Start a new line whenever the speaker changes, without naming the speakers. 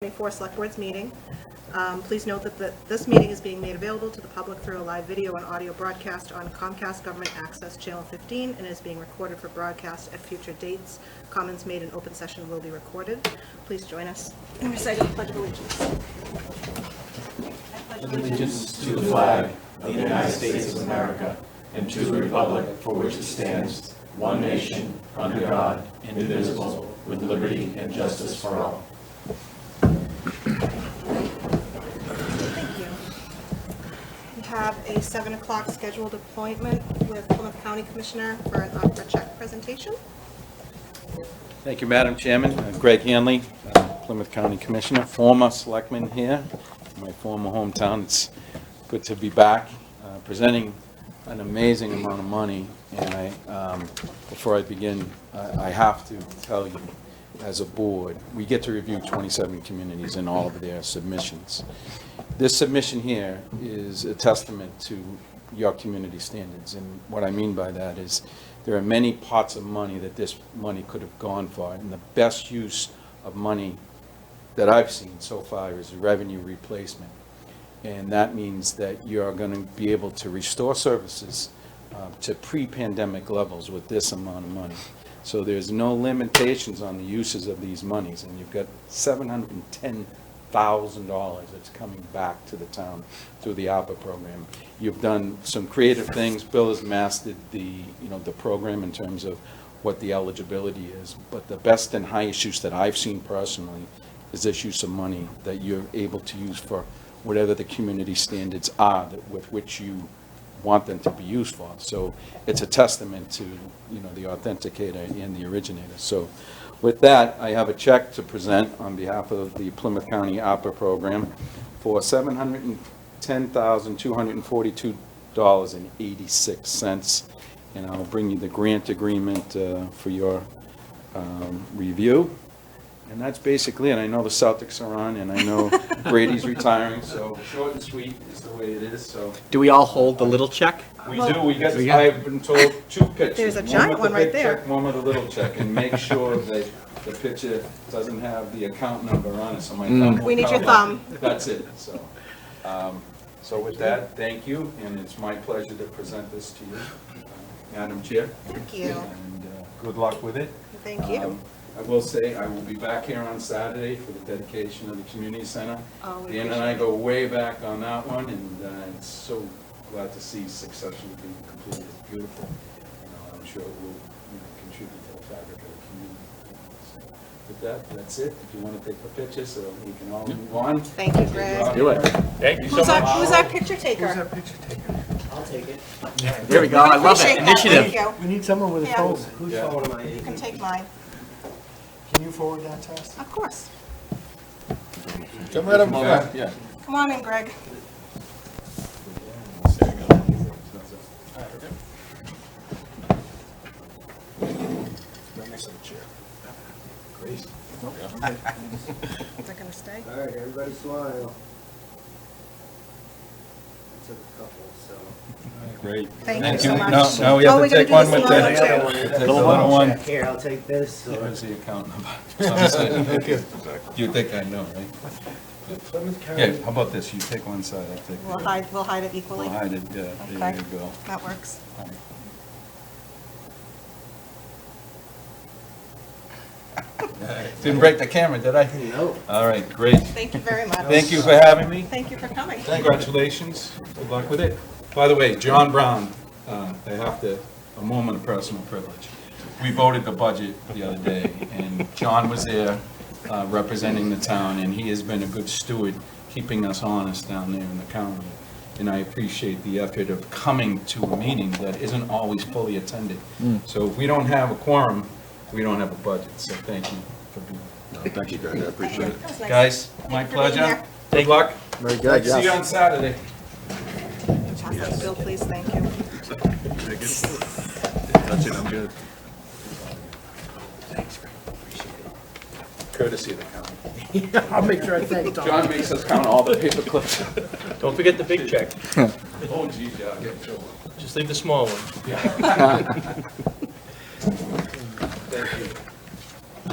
24 Select Board's meeting. Um, Please note that the- this meeting is being made available to the public through a live video and audio broadcast on Comcast Government Access Channel 15 and is being recorded for broadcast at future dates. Comments made in open session will be recorded. Please join us in reciting the Pledge of Allegiance.
allegiance to the flag of the United States of America and to the republic for which it stands, one nation, under God, indivisible, with liberty and justice for all.
Thank you. We have a 7 o'clock scheduled appointment with Plymouth County Commissioner for an opera check presentation.
Thank you, Madam Chairman. Uh, Greg Hanley, uh, Plymouth County Commissioner, former selectman here, my former hometown. It's good to be back, uh, presenting an amazing amount of money. And I, um, before I begin, I I have to tell you, as a board, we get to review 27 communities and all of their submissions. This submission here is a testament to your community standards, and what I mean by that is, there are many pots of money that this money could have gone for, and the best use of money that I've seen so far is revenue replacement. And that means that you're going to be able to restore services uh, to pre-pandemic levels with this amount of money. So there's no limitations on the uses of these monies, and you've got $710,000 that's coming back to the town through the ARPA program. You've done some creative things. Bill has mastered the, you know, the program in terms of what the eligibility is, but the best and highest use that I've seen personally is this use of money that you're able to use for whatever the community standards are that- with which you want them to be used for. So it's a testament to, you know, the authenticator and the originator. So with that, I have a check to present on behalf of the Plymouth County opera program for $710,242.86. And I'll bring you the grant agreement uh, for your um, review. And that's basically, it. I know the Celtics are on, and I know Brady's retiring, so short and sweet is the way it is, so.
Do we all hold the little check?
We do, we get,
We got-
I've been told two pitches.
There's a giant one right there.
One with the big check, one with the little check, and make sure that the pitcher doesn't have the account number on it, so my thumb will
We need your
cover.
thumb.
That's it, so. um, So with that, thank you, and it's my pleasure to present this to you, uh, Madam Chair.
Thank you.
And uh, good luck with it.
Thank you.
Um, I will say, I will be back here on Saturday for the dedication of the community center.
Oh, we
Dan and I
appreciate it.
go way back on that one, and uh, it's so glad to see successfully being completed, It's beautiful. You know, I'm sure it will you know, contribute to the fabric of the community. So With that, that's it, if you want to take a picture, so we can all move on.
Thank you, Greg.
Do it.
Who's our, who's our picture taker?
I'll take it.
There we go, I love
Appreciate
it,
that.
initiative.
Thank
We need someone with
Yeah.
a phone. Who's
Yeah.
phone am I
you. You
using?
can take mine,
Can you forward that to us?
of course.
Come right up. Yeah.
Come on in, Greg. Is that gonna stay?
All right, everybody smile. Took a couple, so.
Great.
Thank you so much.
Now, now we
Oh,
have to
we're gonna
take
do
one
the
with
small one
the,
too.
the little one.
Here, I'll take this.
Here's the account number.
You think I know, right?
Plymouth
Yeah, how about this? You take one side, I'll take the
We'll
other.
hide, we'll hide it equally.
We'll hide it, yeah, there
Okay.
you go.
That works.
Didn't break the camera, did I?
No.
All right, great.
Thank you very much.
Thank you for having me.
Thank you for coming.
Congratulations, good luck with it. By the way, John Brown, uh, I have to, a moment of personal privilege. We voted the budget the other day, and John was there uh, representing the town, and he has been a good steward, keeping us honest down there in the county. And I appreciate the effort of coming to a meeting that isn't always fully attended. So if we don't have a quorum, we don't have a budget, so thank you for being
Thank you, Greg, I appreciate it.
That was nice.
Guys, my
Thank you for being
pleasure.
here.
Good luck.
Very
See you on Saturday.
Pass that to Bill, please, thank you.
That's it, I'm good.
Courtesy of the county.
I'll make sure I thank Don.
John makes us count all the paper clips.
Don't forget the big check,
Oh, geez, yeah, I get in trouble.
just leave the small one.